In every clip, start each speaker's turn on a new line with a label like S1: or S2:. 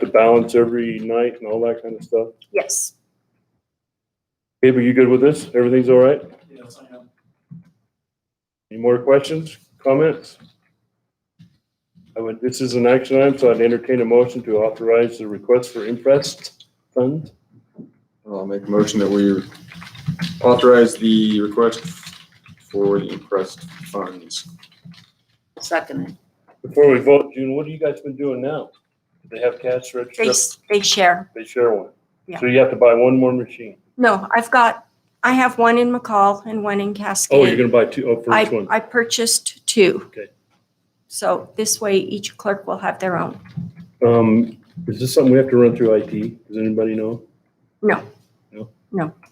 S1: the balance every night and all that kind of stuff.
S2: Yes.
S1: Gabe, are you good with this? Everything's all right?
S3: Yes, I am.
S1: Any more questions, comments? I would, this is an action item, so I'd entertain a motion to authorize the request for impressed funds.
S4: I'll make a motion that we authorize the request for the impressed funds.
S2: Second it.
S1: Before we vote, June, what have you guys been doing now? Do they have cash
S2: They,
S1: register?
S2: s- they share.
S1: They share one.
S2: Yeah.
S1: So you have to buy one more machine.
S2: No, I've got, I have one in McCall and one in Cascade.
S1: Oh, you're gonna buy two, oh, first
S2: I,
S1: one.
S2: I purchased two.
S1: Okay.
S2: So this way each clerk will have their own.
S1: Um, is this something we have to run through IT? Does anybody know?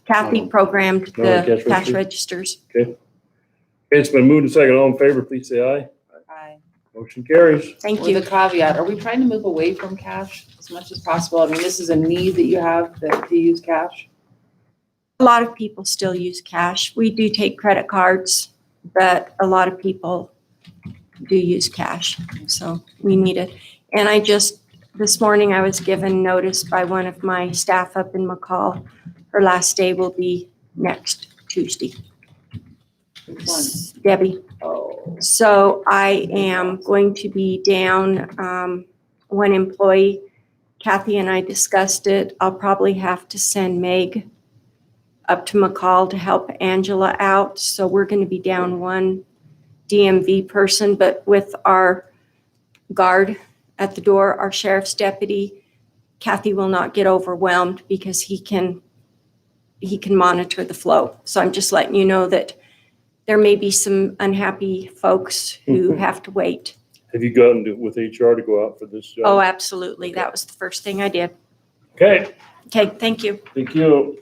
S2: Kathy programmed
S1: No, the
S2: the
S1: cash
S2: cash
S1: register?
S2: registers.
S1: Okay, It's been moved and second. All in favor, please say aye.
S5: Aye.
S1: Motion carries.
S2: Thank
S5: With
S2: you.
S5: a caveat, are we trying to move away from cash as much as possible? I mean, this is a need that you have that to use cash.
S2: A lot of people still use cash. We do take credit cards, but a lot of people do use cash. So we need it. And I just, this morning I was given notice by one of my staff up in McCall. Her last day will be next Tuesday.
S5: Which one?
S2: Debbie.
S5: Oh,
S2: So I am going to be down um, one employee. Kathy and I discussed it. I'll probably have to send Meg up to McCall to help Angela out. So we're going to be down one DMV person, but with our guard at the door, our sheriff's deputy, Kathy will not get overwhelmed because he can, he can monitor the flow. So I'm just letting you know that there may be some unhappy folks who have to wait.
S1: Have you gotten to- with HR to go out for this job?
S2: Oh, absolutely. That was the first thing I did.
S1: Okay,
S2: Okay, thank you.
S1: thank you.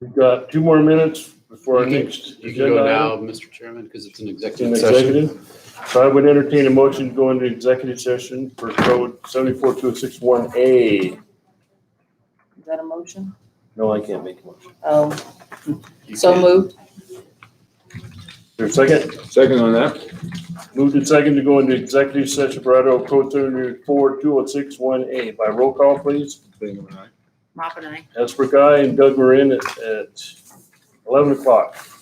S1: We've got two more minutes before our
S6: You can-
S1: next
S6: You can go
S1: agenda
S6: now,
S1: item.
S6: Mr. Chairman, because it's an
S1: It's an
S6: executive session.
S1: executive. So I would entertain a motion to go into executive session for code seventy-four two oh six one A.
S5: is that a motion?
S1: No, I can't make a motion.
S5: Oh,
S1: You
S5: so
S1: can.
S5: moved.
S1: Is there a second?
S4: Second on that,
S1: Moved and second to go into executive session for Idaho code seventy-four two oh six one A. By roll call, please.
S4: Bingham and I.
S5: Mop and I.
S1: Esper Guy and Doug were in at, at eleven o'clock.